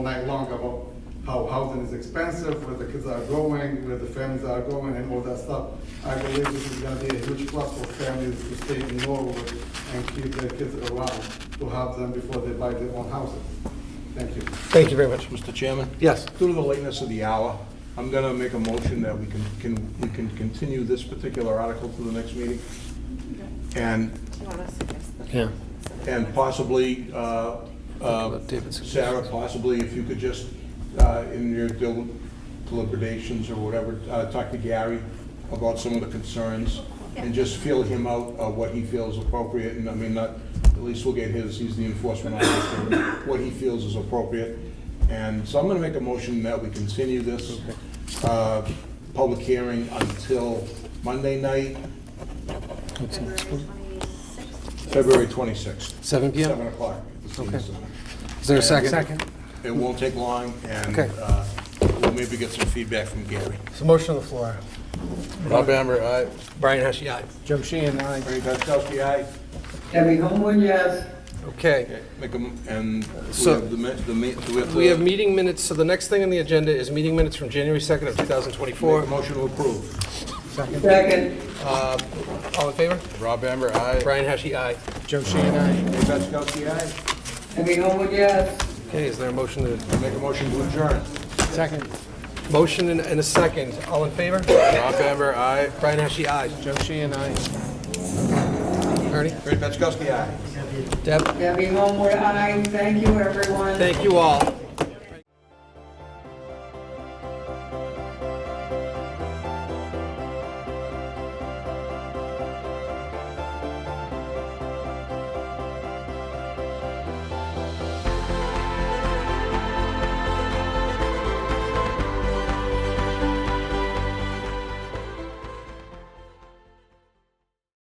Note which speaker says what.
Speaker 1: all night long about how housing is expensive, where the kids are going, where the families are going, and all that stuff. I believe this is gonna be a huge plus for families to stay in Norwood and keep their kids around, to have them before they buy their own houses. Thank you.
Speaker 2: Thank you very much.
Speaker 3: Mr. Chairman?
Speaker 2: Yes.
Speaker 3: Due to the lateness of the hour, I'm going to make a motion that we can, can, we can continue this particular article to the next meeting. And,
Speaker 4: You want us to fix the-
Speaker 2: Yeah.
Speaker 3: and possibly, uh, uh,
Speaker 2: about David's
Speaker 3: Sarah, possibly if you could just, uh, in your del- deliberations or whatever, uh, talk to Gary about some of the concerns and just feel him out, uh, what he feels appropriate, and I mean, not, at least we'll get his, he's the enforcement officer, what he feels is appropriate. And so I'm gonna make a motion that we continue this, uh, public hearing until Monday night,
Speaker 4: February twenty-sixth?
Speaker 3: February twenty-sixth.
Speaker 2: 7 p.m.?
Speaker 3: Seven o'clock. at the senior
Speaker 2: Okay.
Speaker 3: center.
Speaker 2: Is there a
Speaker 3: And
Speaker 2: second?
Speaker 3: It won't take long, and
Speaker 2: Okay.
Speaker 3: uh, we'll maybe get some feedback from Gary.
Speaker 2: So motion on the floor.
Speaker 3: Rob Amber, aye.
Speaker 2: Brian Heskey, aye. Jim Sheehan, aye.
Speaker 3: Frank Gaskowski, aye.
Speaker 5: Debbie Homewood, yes.
Speaker 2: Okay.
Speaker 3: Okay, Make 'em- and we
Speaker 2: So-
Speaker 3: have the, ma- the ma- do we have to...
Speaker 2: We have meeting minutes, so the next thing on the agenda is meeting minutes from January 2nd of
Speaker 3: Make a
Speaker 2: 2024.
Speaker 3: motion to approve.
Speaker 5: Second,
Speaker 2: Uh, All in favor?
Speaker 3: Rob Amber, aye.
Speaker 2: Brian Heskey, aye.
Speaker 3: Jim Sheehan, aye. Frank Gaskowski, aye.
Speaker 5: Debbie Homewood, yes.
Speaker 2: Okay, is there a motion to,
Speaker 3: Make a motion to adjourn.
Speaker 2: second? Motion and and a second. All in favor?
Speaker 3: Rob Amber, aye.
Speaker 2: Brian Heskey, aye. Joe Sheehan, aye. Ernie?
Speaker 3: Frank Gaskowski, aye.
Speaker 2: Deb?
Speaker 5: Debbie Homewood, aye. Thank you, everyone.
Speaker 2: Thank you all.